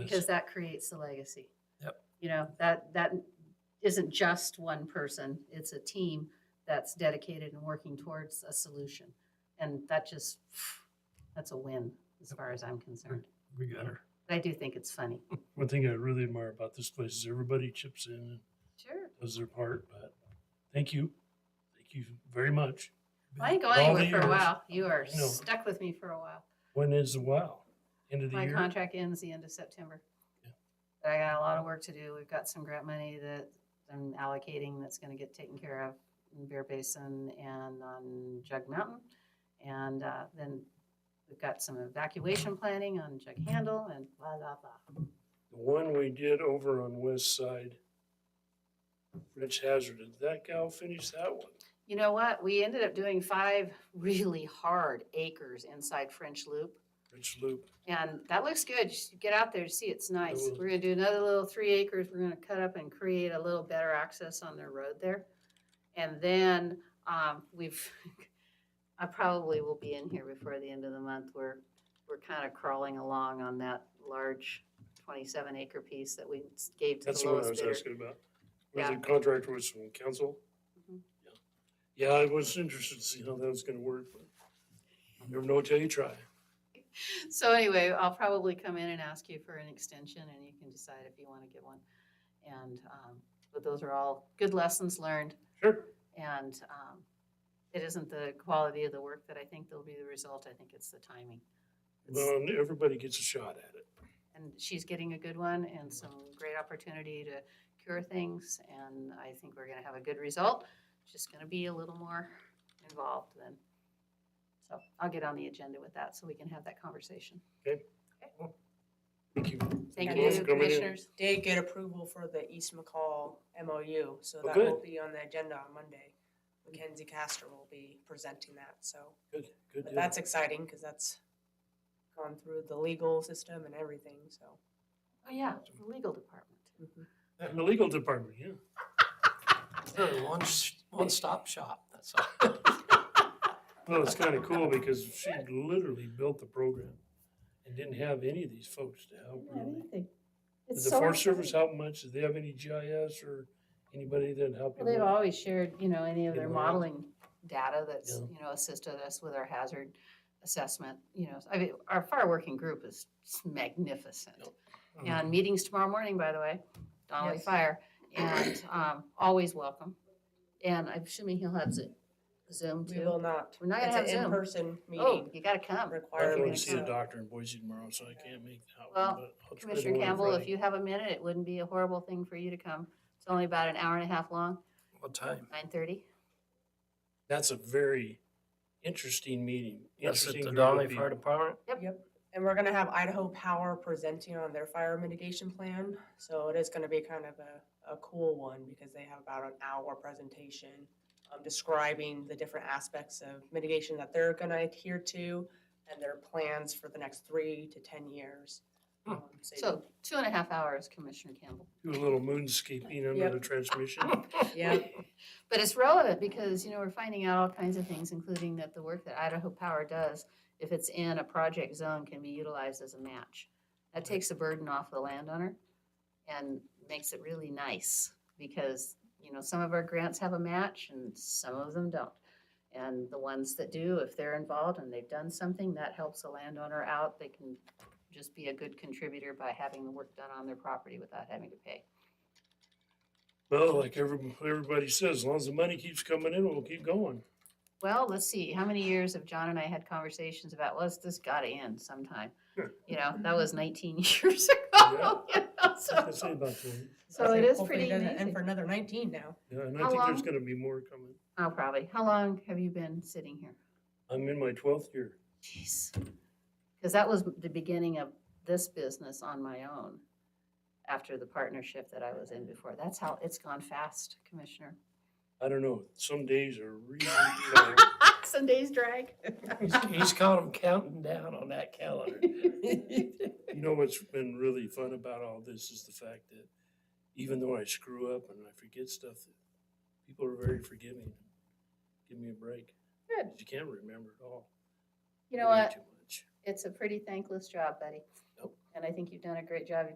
because that creates the legacy. Yep. You know, that, that isn't just one person, it's a team that's dedicated and working towards a solution. And that just, that's a win as far as I'm concerned. We got her. But I do think it's funny. One thing I really admire about this place is everybody chips in and Sure. does their part, but thank you. Thank you very much. I ain't All going the anywhere for a years. while. You are No. stuck with me for a while. When is the wow? End of the My year? contract ends the end of September. Yeah. But I got a lot of work to do. We've got some grant money that I'm allocating that's gonna get taken care of in Bear Basin and on Jug Mountain. And uh, then we've got some evacuation planning on Jug Handle and blah, blah, blah. The one we did over on West Side, Rich Hazard, did that gal finish that one? You know what? We ended up doing five really hard acres inside French Loop. Rich Loop, And that looks good. You should get out there to see. It's nice. will. We're gonna do another little three acres. We're gonna cut up and create a little better access on their road there. And then, um, we've, I probably will be in here before the end of the month. We're, we're kind of crawling along on that large twenty-seven acre piece that we s- gave to that's the the one I lowest was bidder. asking about. Was Yeah. the contractor was from council? Mhm. Yeah, I was interested to see how that was gonna work, but you never know until you try. So anyway, I'll probably come in and ask you for an extension and you can decide if you wanna get one. And, um, but those are all good lessons learned. Sure. And um, it isn't the quality of the work that I think will be the result. I think it's the timing. It's- Well, and everybody gets a shot at it. And she's getting a good one and some great opportunity to cure things. And I think we're going to have a good result. It's Just going to be a little more involved then. So I'll get on the agenda with that so we can have that conversation. Thank you. Thank Thank you both you, for coming in. commissioners. did get approval for the East McCall MOU, so Oh, that will good. be on the agenda on Monday. Mackenzie Castor will be presenting that, so Good, good. but deal. that's exciting because that's gone through the legal system and everything, so. Oh, yeah, the legal department. And the legal department, yeah. One, one stop shop, that's all. Well, it's kind of cool because she literally built the program and didn't have any of these folks to help really. Did the Forest Service help much? Did they have any GIS or anybody that helped? you Well, They've with it? always shared, you know, any of their Good modeling data that's, Yeah. you know, assisted us with our hazard assessment, you know, I mean, our fire working group is magnificent. Mhm. And meetings tomorrow morning, by the way, Donnelly Yes. Fire, and, um, always welcome. And I'm assuming he'll have Zo- Zoom We will too. not. We're not gonna have It's an Zoom. in-person Oh, meeting. you gotta come. I required. have you to gonna see a come? doctor in Boise tomorrow, so I can't make that Well, one. but I'll try Commissioner to go on Campbell, if Friday. you have a minute, it wouldn't be a horrible thing for you to come. It's only about an hour and a half long, What time? nine thirty. That's a very interesting meeting. That's at interesting group the of Donley Fire people. Department? And we're gonna have Idaho Power presenting on their fire mitigation plan, so it is gonna be kind of a, a cool one because they have about an hour presentation um, describing the different aspects of mitigation that they're gonna adhere to and their plans for the next three to ten years. Hmm. Um, you- So two and a half hours, Commissioner Campbell. Do a little moonscaping under Yep. the transmission. Yeah, But it's relevant because, you know, we're finding out all kinds of things, including that the work that Idaho Power does, if it's in a project zone, can be utilized as a match. That takes the burden off the landowner and makes it really nice because, you know, some of our grants have a match and some of them don't. And the ones that do, if they're involved and they've done something, that helps the landowner out. They can just be a good contributor by having the work done on their property without having to pay. Well, like every, everybody says, as long as the money keeps coming in, we'll keep going. Well, let's see, how many years have John and I had conversations about, well, this- this gotta end sometime? Sure. You know, that was nineteen years ago. you know, That's what I say so- about that. So it is Hopefully pretty doesn't amazing. End for another nineteen now. Yeah, and I How think there's long- gonna be more coming. Oh, probably. How long have you been sitting here? I'm in my twelfth year. Jeez. Because that was the beginning of this business on my own after the partnership that I was in before. That's how, it's gone fast, Commissioner. I don't know, some days are really, Some days drag. He's caught him counting down on that calendar. you know what's been really fun about all this is the fact that even though I screw up and I forget stuff, people are very forgiving. Give me a break. Good. You can't remember it all. You know Way what? Too much. It's a pretty thankless job, buddy. Nope. And I think you've done a great job.